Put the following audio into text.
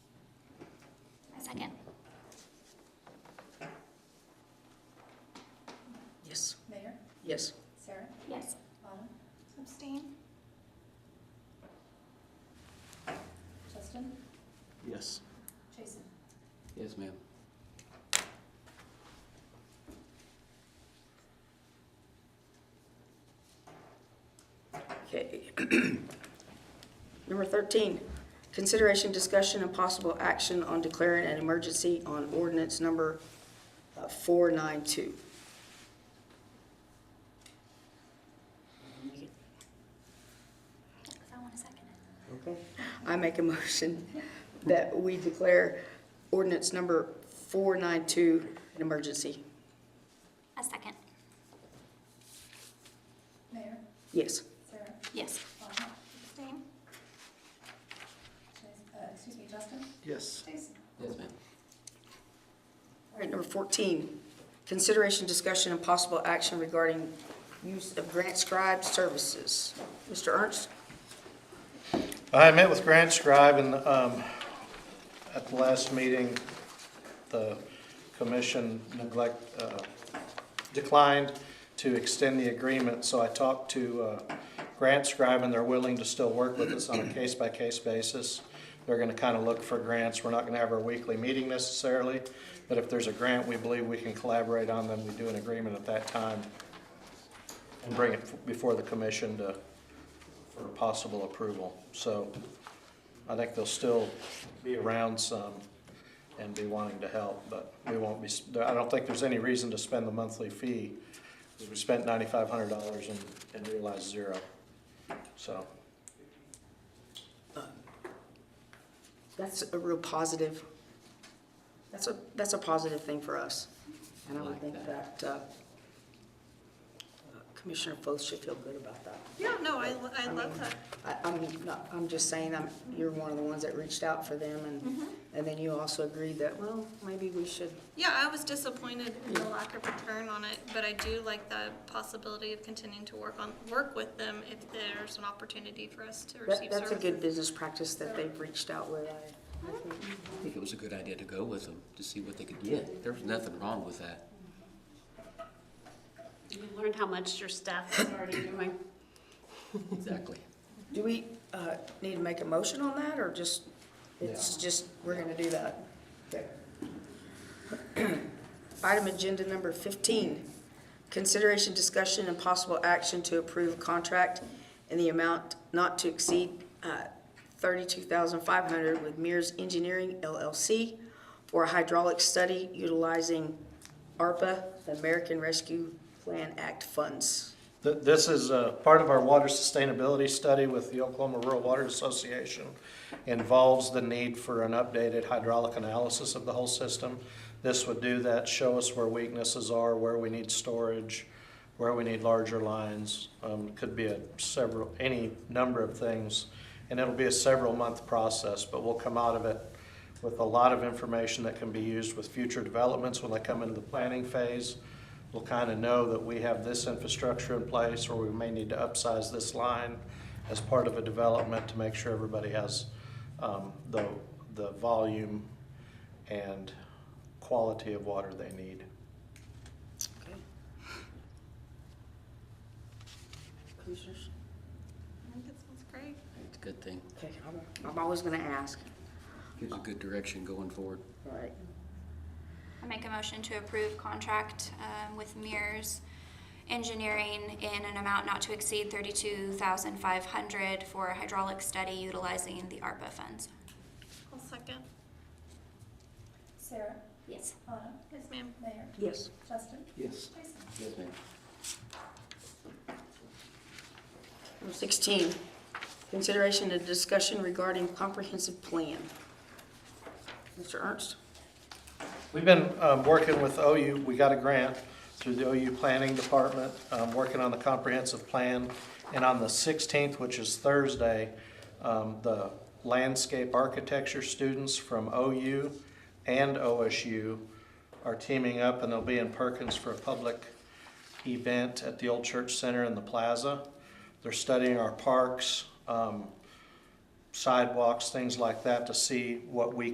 Yes. Sarah? Yes. Autumn? Abstain? Justin? Yes. Jason? Yes, ma'am. Okay. Number 13, consideration, discussion, and possible action on declaring an emergency on ordinance number uh, 492. If I want to second it. Okay. I make a motion that we declare ordinance number 492 an emergency. A second. Mayor? Yes. Sarah? Yes. Autumn? Abstain? Jas- uh, Excuse me, Justin? Yes. Jason? Yes, ma'am. All right, number 14, consideration, discussion, and possible action regarding use of grant scribe services. Mr. Ernst? I met with Grant Scribe and, um, at the last meeting, the commission neglect, uh, declined to extend the agreement, so I talked to, uh, Grant Scribe and they're willing to still work with us on a case-by-case basis. They're gonna kinda look for grants. We're not gonna have our weekly meeting necessarily, but if there's a grant we believe we can collaborate on, then we do an agreement at that time and bring it before the commission to, for possible approval. So I think they'll still be around some and be wanting to help, but we won't be, I don't think there's any reason to spend the monthly fee. 'cause We spent ninety-five hundred dollars and, and realized zero. So, That's a real positive, that's a, that's a positive thing for us. And I I would like think that. that uh, Commissioner Foth should feel good about that. Yeah, no, I, lo- I love that. I, I'm not, I'm just saying, I'm, you're one of the ones that reached out for them and, and then you also agreed that, well, maybe we should. Yeah, I was disappointed in the lack of return on it, but I do like the possibility of continuing to work on, work with them if there's an opportunity for us to That, receive services. that's a good business practice that they've reached out with. I- I think. I think it was a good idea to go with them, to see what they could get. There was nothing wrong with that. You learned how much your staff is already doing. Exactly. Do we, uh, need to make a motion on that or just, it's just, we're gonna do that? Okay. Item agenda number fifteen, consideration, discussion, and possible action to approve contract in the amount not to exceed, uh, thirty-two thousand five hundred with Mears Engineering LLC for a hydraulic study utilizing ARPA, the American Rescue Plan Act funds. th- this is, uh, part of our water sustainability study with the Oklahoma Rural Water Association. Involves the need for an updated hydraulic analysis of the whole system. This would do that, show us where weaknesses are, where we need storage, where we need larger lines. Um, could be a several, any number of things. And it'll be a several month process, but we'll come out of it with a lot of information that can be used with future developments when they come into the planning phase. We'll kind of know that we have this infrastructure in place or we may need to upsize this line as part of a development to make sure everybody has um, the, the volume and quality of water they need. Commissioners? I think it sounds great. It's a good thing. Okay, I'm- I'm always gonna ask. Gives a good direction going forward. All right. I make a motion to approve contract um, with Mears Engineering in an amount not to exceed thirty-two thousand five hundred for a hydraulic study utilizing the ARPA funds. I'll second. Sarah? Yes. Autumn? Yes, ma'am. Mayor? Yes. Justin? Yes. Jason? Yes, ma'am. Number 16, consideration and discussion regarding comprehensive plan. Mr. Ernst? We've been um, working with OU, we got a grant through the OU Planning Department, um, working on the comprehensive plan. And on the 16th, which is Thursday, um, the landscape architecture students from OU and OSU are teaming up and they'll be in Perkins for a public event at the Old Church Center in the plaza. They're studying our parks, um, sidewalks, things like that to see what we